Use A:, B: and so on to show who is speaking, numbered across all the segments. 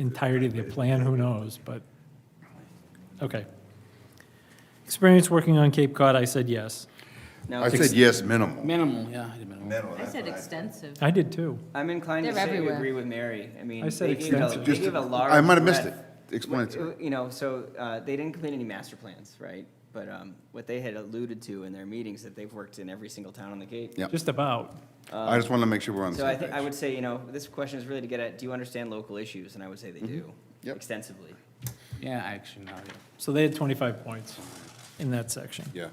A: entirety of the plan, who knows, but, okay. Experience working on Cape Cod, I said yes.
B: No,
C: I said yes, minimal.
D: Minimal, yeah, I did minimal.
C: Minimal,
E: I
C: that's
E: said
C: what I-
E: extensive.
A: I did too.
B: I'm inclined to
E: They're
B: say we
E: everywhere.
B: agree with Mary. I mean,
A: I said
B: they gave a-
A: extensive.
B: they
A: Just-
B: gave a large.
C: I might have missed it.
B: breadth.
C: Explain it to me.
B: You know, so uh, they didn't complete any master plans, right? But um, what they had alluded to in their meetings, that they've worked in every single town on the Cape.
C: Yeah.
A: Just about.
C: I just want to make sure we're on the
B: Uh, So I
C: same
B: think, I
C: page.
B: would say, you know, this question is really to get at, do you understand local issues? And I would say they do,
C: Mm-hmm. Yep.
B: extensively.
D: Yeah, I actually, no, yeah.
A: So they had 25 points in that section.
C: Yeah.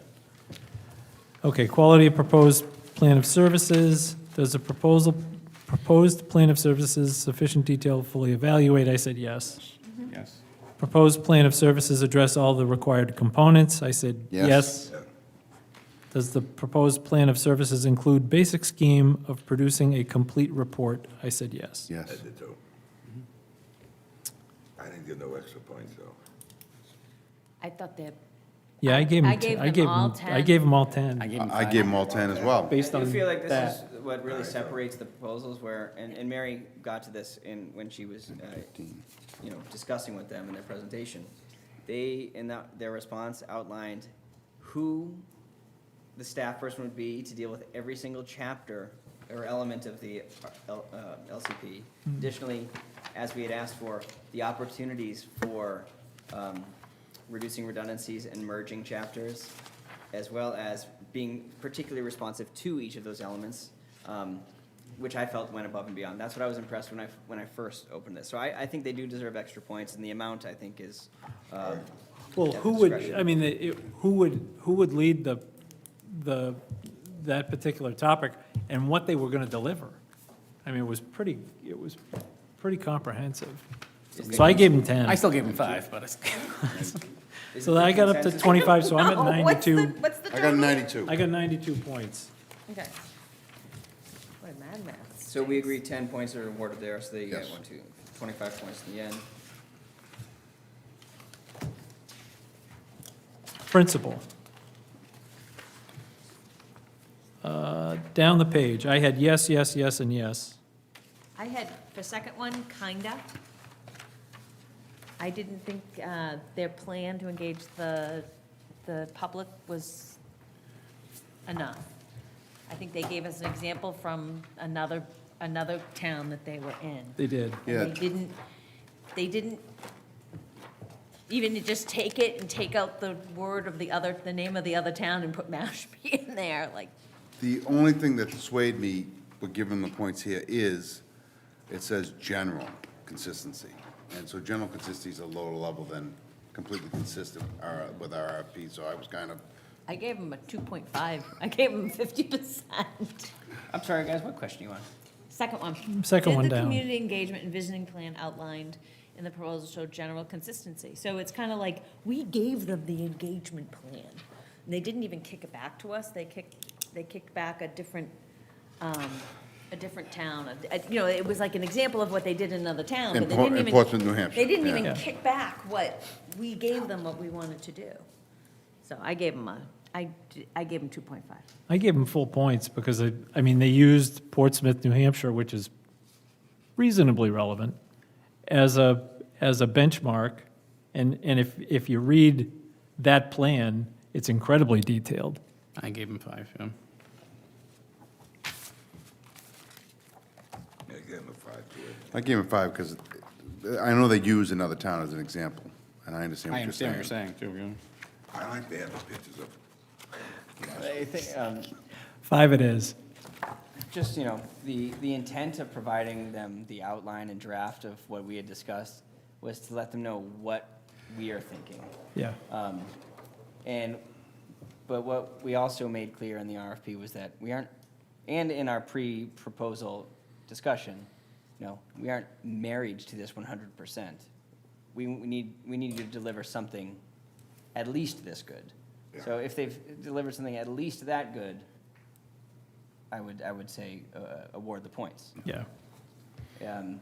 A: Okay, quality of proposed plan of services. Does the proposal, proposed plan of services sufficient detail fully evaluate? I said yes.
D: yes.
A: Proposed plan of services address all the required components? I said yes. Does the proposed plan of services include basic scheme of producing a complete report? I said yes.
C: Yes. Mm-hmm.
F: I did too. I didn't give no extra points, though.
E: I thought that,
A: Yeah, I gave them,
E: I
A: I
E: gave them
A: gave
E: all
A: them, I
E: 10.
A: gave them all
D: I
A: 10,
D: gave him
C: I I
D: five.
C: gave them all 10 as well.
A: based
B: I
A: on
B: do feel like this
A: that.
B: is what really separates the proposals where, and, and Mary got to this in, when she was, uh, you know, discussing with them in their presentation. They, in that, their response outlined who the staff person would be to deal with every single chapter or element of the uh, L- uh, LCP.
A: Hmm.
B: Additionally, as we had asked for, the opportunities for um, reducing redundancies and merging chapters, as well as being particularly responsive to each of those elements, um, which I felt went above and beyond. That's what I was impressed when I, when I first opened this. So I, I think they do deserve extra points, and the amount, I think, is. um,
A: Well,
B: at
A: who
B: the
A: would,
B: discretion.
A: I mean, it- who would, who would lead the, the, that particular topic and what they were going to deliver? I mean, it was pretty, it was pretty comprehensive. So I gave them
D: I
A: 10.
D: still gave him five, but it's,
B: Is
A: So
B: it
A: I got up to
B: consensus?
A: 25, so I'm
E: No,
A: at
E: Oh, what's the-
A: 92.
E: What's the
C: I got
E: total?
C: 92.
A: I got 92 points.
E: Okay. What a mad math.
B: So we agree ten points are awarded there, so they get
C: Yes.
B: one, two, twenty-five points in the end.
A: Principal. Uh, Down the page, I had yes, yes, yes, and yes.
E: I had, the second one, kinda. I didn't think uh, their plan to engage the, the public was enough. I think they gave us an example from another, another town that they were in.
A: They did.
C: Yeah.
E: And they didn't, they didn't even to just take it and take out the word of the other, the name of the other town and put Mashpee in there, like,
C: The only thing that swayed me, but given the points here, is it says general consistency. And so general consistency is a lower level than completely consistent our- with our RFP, so I was kind of,
E: I gave them a 2.5. I gave them 50%.
B: I'm sorry, guys, what question you want?
E: Second one.
A: Second one
E: Did the
A: down.
E: community engagement and visioning plan outlined in the proposal show general consistency? So it's kind of like, we gave them the engagement plan. And they didn't even kick it back to us. They kicked, they kicked back a different, um, a different town. A- a- You know, it was like an example of what they did in another town,
C: In
E: but they
C: Por-
E: didn't
C: in
E: even.
C: Portsmouth, New Hampshire,
E: They didn't
C: yeah.
E: even
A: Yeah.
E: kick back what, we gave them what we wanted to do. So I gave them a, I, d- I gave them 2.5.
A: I gave them full points because I, I mean, they used Portsmouth, New Hampshire, which is reasonably relevant, as a, as a benchmark. And, and if, if you read that plan, it's incredibly detailed.
D: I gave him five, yeah.
F: I gave him a five to it.
C: I gave it five because I know they use another town as an example, and I understand
D: I
C: what you're saying.
D: understand what you're saying, too,
F: I like to have the pictures of,
B: I think, um,
A: Five it is.
B: just, you know, the, the intent of providing them the outline and draft of what we had discussed was to let them know what we are thinking.
A: Yeah.
B: Um, And, but what we also made clear in the RFP was that we aren't, and in our pre-proposal discussion, no, we aren't married to this one hundred percent. We, we need, we need to deliver something at least this good. So if they've delivered something at least that good, I would, I would say, uh, award the points.
A: Yeah.
B: Um,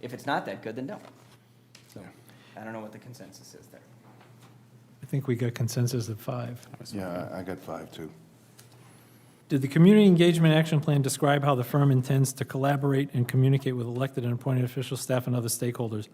B: If it's not that good, then don't. So, I don't know what the consensus is there.
A: I think we got consensus of five.
C: Yeah, I I got five, too.
A: Did the Community Engagement Action Plan describe how the firm intends to collaborate and communicate with elected and appointed officials, staff, and other stakeholders?